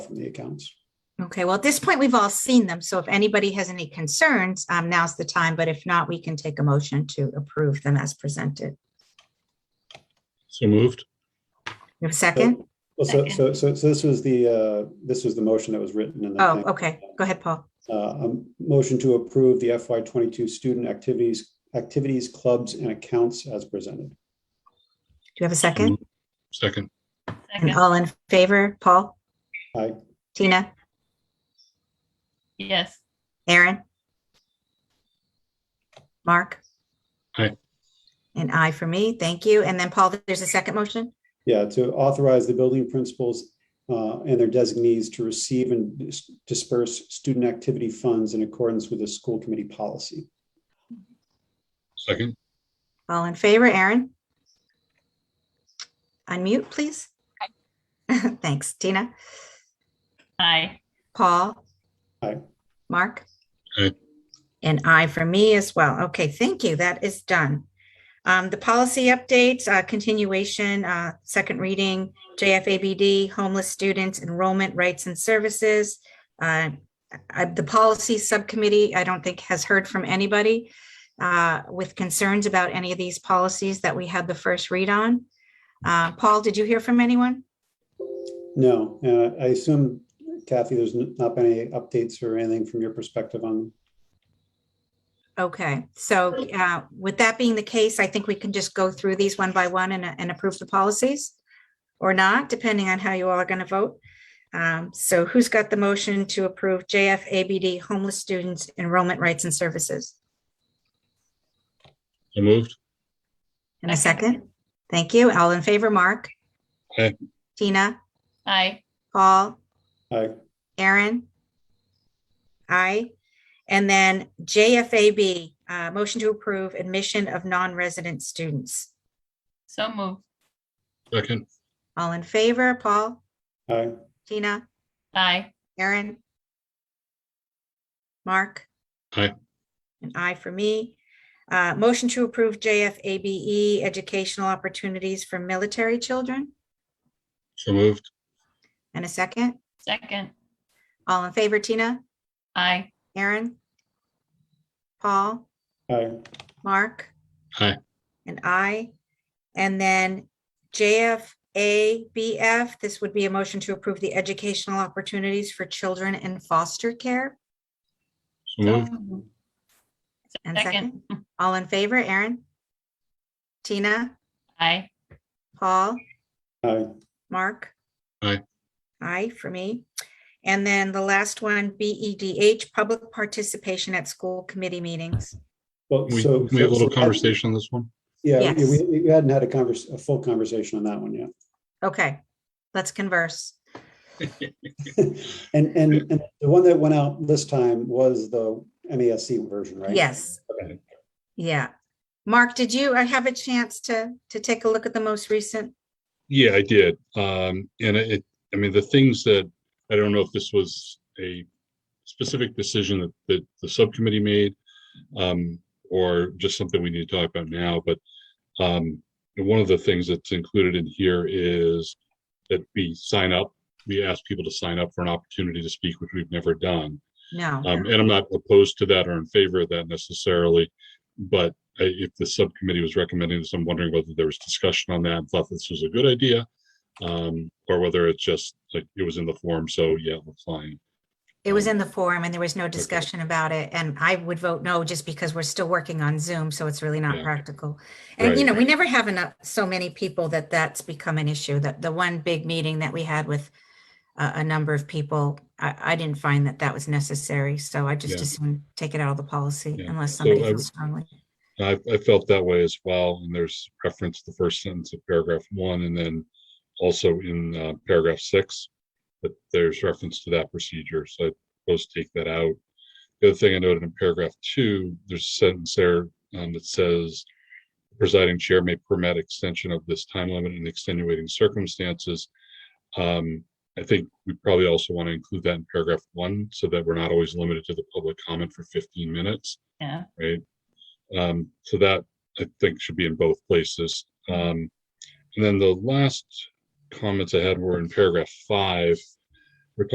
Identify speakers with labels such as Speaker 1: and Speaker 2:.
Speaker 1: from the accounts.
Speaker 2: Okay, well, at this point, we've all seen them, so if anybody has any concerns, um, now's the time, but if not, we can take a motion to approve them as presented.
Speaker 3: So moved.
Speaker 2: You have a second?
Speaker 1: Well, so, so, so, so this was the, uh, this was the motion that was written in the.
Speaker 2: Oh, okay, go ahead, Paul.
Speaker 1: Uh, a motion to approve the FY twenty-two student activities, activities, clubs and accounts as presented.
Speaker 2: Do you have a second?
Speaker 3: Second.
Speaker 2: And
Speaker 4: Second,
Speaker 2: all in favor, Paul,
Speaker 1: Aye.
Speaker 2: Tina,
Speaker 4: yes,
Speaker 2: Aaron? Mark?
Speaker 3: Aye.
Speaker 2: An aye for me, thank you. And then, Paul, there's a second motion?
Speaker 1: Yeah, to authorize the building principals uh, and their designees to receive and dis- disperse student activity funds in accordance with the school committee policy.
Speaker 3: Second.
Speaker 2: All in favor, Aaron? Unmute, please. Thanks, Tina.
Speaker 4: aye,
Speaker 2: Paul?
Speaker 1: Aye.
Speaker 2: Mark?
Speaker 3: Aye.
Speaker 2: And I for me as well. Okay, thank you. That is done. Um, the policy updates, uh, continuation, uh, second reading, JFABD, homeless students, enrollment rights and services. Uh, I- the policy subcommittee, I don't think has heard from anybody uh, with concerns about any of these policies that we had the first read on. Uh, Paul, did you hear from anyone?
Speaker 1: No, and I I assume Kathy, there's n- not been any updates or anything from your perspective on,
Speaker 2: Okay, so uh, with that being the case, I think we can just go through these one by one and, and approve the policies or not, depending on how you all are going to vote. Um, So who's got the motion to approve JFABD homeless students enrollment rights and services?
Speaker 3: So moved.
Speaker 2: In a second? Thank you. All in favor, Mark?
Speaker 3: Aye.
Speaker 2: Tina,
Speaker 4: aye,
Speaker 2: Paul?
Speaker 1: I,
Speaker 2: Aaron? Aye. And then JFAB, uh, motion to approve admission of non-resident students.
Speaker 4: so move,
Speaker 3: Second.
Speaker 2: All in favor, Paul?
Speaker 1: I,
Speaker 2: Tina,
Speaker 4: aye,
Speaker 2: Aaron? Mark?
Speaker 3: Aye.
Speaker 2: An aye for me. Uh, motion to approve JFABE E educational opportunities for military children.
Speaker 3: So moved.
Speaker 2: And a second.
Speaker 4: second,
Speaker 2: All in favor, Tina,
Speaker 4: aye,
Speaker 2: Aaron? Paul,
Speaker 1: I,
Speaker 2: Mark?
Speaker 3: Aye.
Speaker 2: An aye. And then JFABF, this would be a motion to approve the educational opportunities for children in foster care.
Speaker 3: So
Speaker 4: so
Speaker 3: moved.
Speaker 4: moved,
Speaker 2: And second.
Speaker 4: second,
Speaker 2: All in favor, Aaron? Tina,
Speaker 4: aye,
Speaker 2: Paul,
Speaker 1: I,
Speaker 2: Mark?
Speaker 3: Aye.
Speaker 2: Aye for me. And then the last one, BEDH, public participation at school committee meetings.
Speaker 1: well,
Speaker 3: Can we,
Speaker 1: so.
Speaker 3: can we have a
Speaker 1: so-
Speaker 3: little conversation on this one?
Speaker 1: Yeah,
Speaker 2: Yes.
Speaker 1: we, we hadn't had a convers, a full conversation on that one yet.
Speaker 2: Okay, let's converse.
Speaker 1: And, and, and the one that went out this time was the MASC version, right?
Speaker 2: Yes.
Speaker 1: Okay.
Speaker 2: Yeah. Mark, did you uh, have a chance to, to take a look at the most recent?
Speaker 3: Yeah, I did. Um, and it, it- I mean, the things that, I don't know if this was a specific decision that, that the subcommittee made, um, or just something we need to talk about now, but, um, one of the things that's included in here is that we sign up, we ask people to sign up for an opportunity to speak, which we've never done.
Speaker 2: No.
Speaker 3: Um, and I'm not opposed to that or in favor of that necessarily, but uh, if the subcommittee was recommending this, I'm wondering whether there was discussion on that, and thought this was a good idea. Um, or whether it's just like it was in the form, so yeah, we're fine.
Speaker 2: It
Speaker 3: Oh.
Speaker 2: was in the forum and there was no discussion about it. And I would vote no, just because we're still working on Zoom, so it's really not
Speaker 3: Yeah.
Speaker 2: practical. And you
Speaker 3: Right.
Speaker 2: know, we never have enough, so many people that that's become an issue. That the one big meeting that we had with a, a number of people, I, I didn't find that that was necessary. So I just
Speaker 3: Yeah.
Speaker 2: assumed take it out of the policy
Speaker 3: Yeah.
Speaker 2: unless
Speaker 3: So
Speaker 2: somebody
Speaker 3: I-
Speaker 2: feels strongly.
Speaker 3: I, I felt that way as well, and there's reference to the first sentence of paragraph one, and then also in uh, paragraph six, that there's reference to that procedure, so I propose to take that out. The other thing I noted in paragraph two, there's a sentence there um, that says, presiding chair may permit extension of this time limit in extenuating circumstances. Um, I think we probably also want to include that in paragraph one, so that we're not always limited to the public comment for fifteen minutes
Speaker 4: yeah,
Speaker 3: right? Um, so that I think should be in both places. Um, and then the last comments I had were in paragraph five,